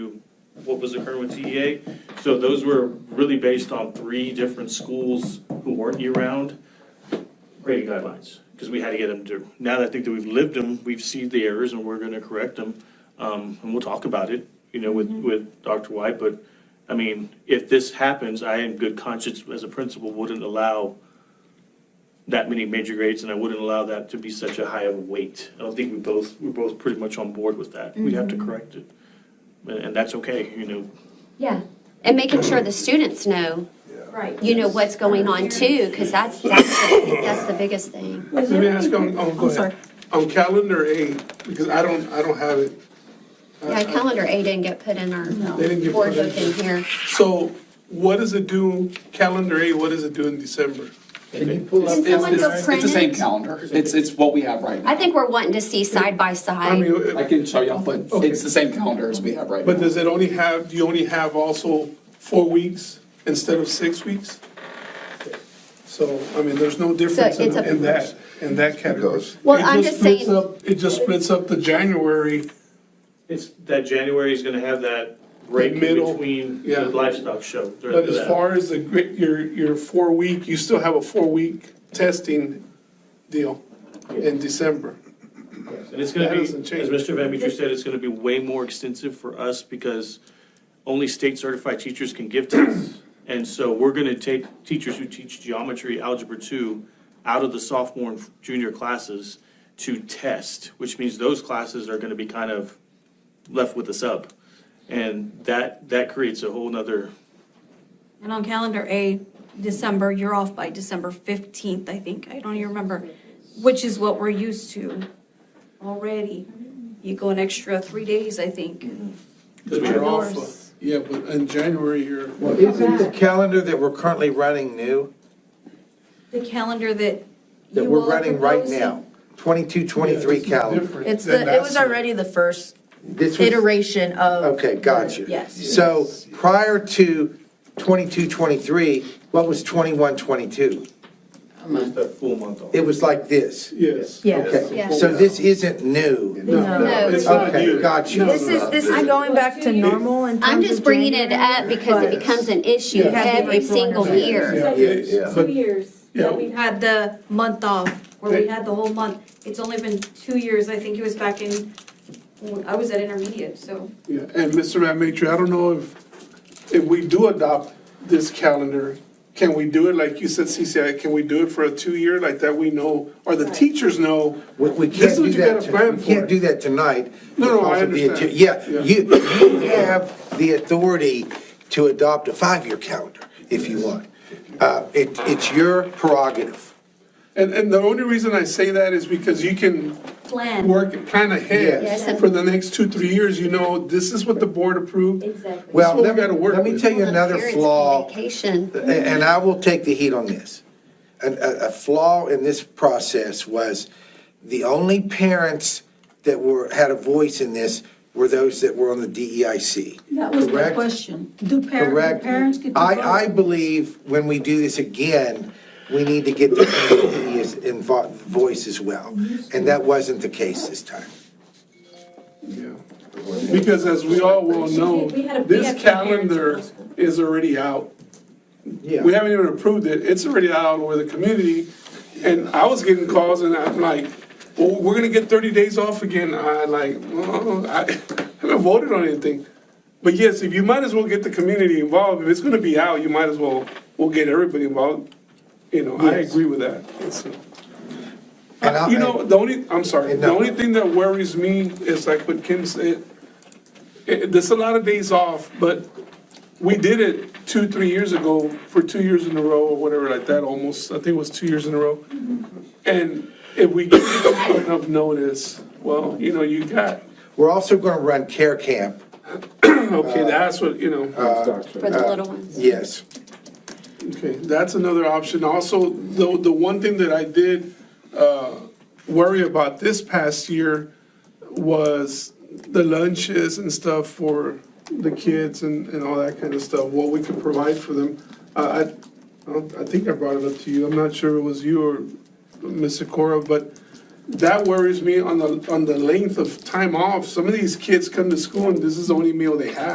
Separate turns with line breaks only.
what was occurring with TEA. So those were really based on three different schools who weren't year-round grading guidelines. Because we had to get them to, now that I think that we've lived them, we've seen the errors and we're gonna correct them. Um, and we'll talk about it, you know, with, with Dr. White, but, I mean, if this happens, I in good conscience as a principal wouldn't allow that many major grades and I wouldn't allow that to be such a high of a weight. I don't think we both, we're both pretty much on board with that. We have to correct it. And, and that's okay, you know,
Yeah, and making sure the students know,
Right.
you know, what's going on too, because that's, that's, the- that's the biggest thing.
Let me ask on, on, go ahead. On calendar A, because I don't, I don't have it. I-
Yeah,
I-
calendar A didn't get put in our
They didn't get
board
put in.
book in here.
So what does it do, calendar A, what does it do in December?
Can you pull up?
Can someone
this?
go
It's
print
the same
it?
calendar. It's, it's what we have right
I
now.
think we're wanting to see side by
I
side.
mean,
I
uh,
can show y'all, but it's the same calendar as we have right
but
now.
does it only have, do you only have also four weeks instead of six weeks? So, I mean, there's no difference in
it's a-
in that, in that category.
goes.
Well,
It
I'm just
splits
saying-
up- It just splits up the January,
It's, that January is gonna have that break in
Middle,
between
yeah.
the livestock show. during
but as
that.
far as the, gri- your, your four week, you still have a four week testing deal in December.
And it's gonna
That
be, as
doesn't change.
Mr. Van Beecher said, it's gonna be way more extensive for us because only state certified teachers can give tests. And so we're gonna take teachers who teach geometry, algebra two, out of the sophomore and junior classes to test, which means those classes are gonna be kind of left with a sub. And that, that creates a whole nother
And on calendar A, December, you're off by December 15th, I think. I don't even remember, which is what we're used to already. You go an extra three days, I think.
Because we're off, uh, yeah, but in January, you're,
Well, isn't the calendar that we're currently running new,
The calendar that
that
you
we're
all are
running right
proposing-
now? Twenty-two, twenty-three calendar.
It's the, it was already the first
This was-
iteration of.
Okay, got you.
Yes.
So prior to twenty-two, twenty-three, what was twenty-one, twenty-two?
that full month off.
It was like this.
Yes.
Yes.
Yeah.
Okay, so this isn't new.
No,
It's not
Okay,
you.
got you.
This is, this is going back to normal in terms
I'm just
of
bringing it
January,
up because it
but-
becomes an issue
You have to
every
make sure
single
understand.
year.
Yeah,
Yeah.
but-
Two years
Yeah.
that we've had the month off, where we had the whole month. It's only been two years. I think it was back in, I was at intermediate, so.
yeah. And Mr. Van Maitre, I don't know if, if we do adopt this calendar, can we do it, like you said, CCI, can we do it for a two-year, like that we know, or the teachers know?
We, we
This is
can't
what
do
you
that,
gotta
to-
plan
we can't
for.
do that tonight.
No, no, I
because of the
understand.
agi-
Yeah.
Yeah, you, you have the authority to adopt a five-year calendar if you want. Uh, it, it's your prerogative.
And, and the only reason I say that is because you can
Plan.
work, plan
Yes.
ahead
Yes.
for the next two, three years, you know, this is what the board approved.
Exactly.
Well,
what we
let me,
gotta work
let me
with.
tell you another
Parents'
flaw.
Communication.
A- and I will take the heat on this. A, a- a flaw in this process was the only parents that were, had a voice in this were those that were on the DEIC.
That was my
correct?
question. Do parents,
Correct?
do parents get to vote?
I, I believe when we do this again, we need to get the community's invo- voice as well. And that wasn't the case this time.
Yeah. Because as we all well know,
We had a- we had parents
this
in
calendar
high school.
is already out.
Yeah.
We haven't even approved it, it's already out with the community, and I was getting calls and I'm like, well, we're gonna get thirty days off again, I like, "Oh, I haven't voted on anything. But yes, if you might as well get the community involved, if it's gonna be out, you might as well, we'll get everybody involved, you know, I agree with that. It's, uh,
And I-
you know, the only, I'm sorry, the
No.
only thing that worries me is like what Kim said, i- there's a lot of days off, but we did it two, three years ago for two years in a row or whatever like that, almost, I think it was two years in a row. And if we give people enough notice, well, you know, you got,
We're also gonna run care camp,
okay, that's what, you know,
For the little ones.
yes.
okay, that's another option. Also, the, the one thing that I did uh, worry about this past year was the lunches and stuff for the kids and, and all that kind of stuff, what we could provide for them. I, I, I don't- I think I brought it up to you, I'm not sure it was you or Ms. Cora, but that worries me on the, on the length of time off. Some of these kids come to school and this is the only meal they have.